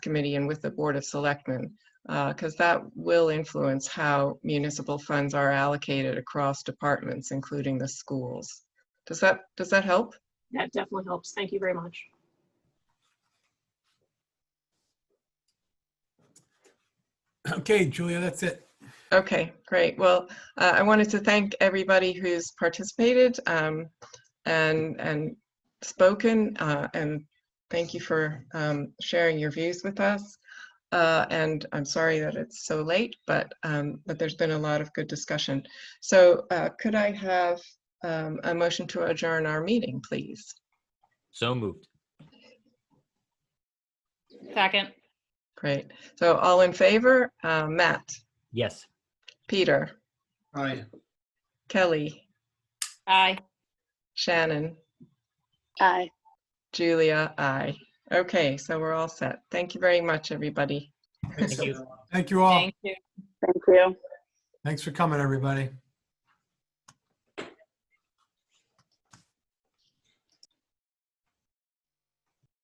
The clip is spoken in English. committee and with the Board of Selectmen, because that will influence how municipal funds are allocated across departments, including the schools. Does that, does that help? That definitely helps. Thank you very much. Okay, Julia, that's it. Okay, great. Well, uh, I wanted to thank everybody who's participated um, and and spoken, uh, and thank you for um, sharing your views with us. Uh, and I'm sorry that it's so late, but um, but there's been a lot of good discussion. So uh, could I have um, a motion to adjourn our meeting, please? So moved. Second, Great. So all in favor? Uh, Matt, Yes. Peter, Aye. Kelly, aye. Shannon. Aye. Julia, I. Okay, so we're all set. Thank you very much, everybody. Thank you. Thank you all. Thank you. Thank you. Thanks for coming, everybody.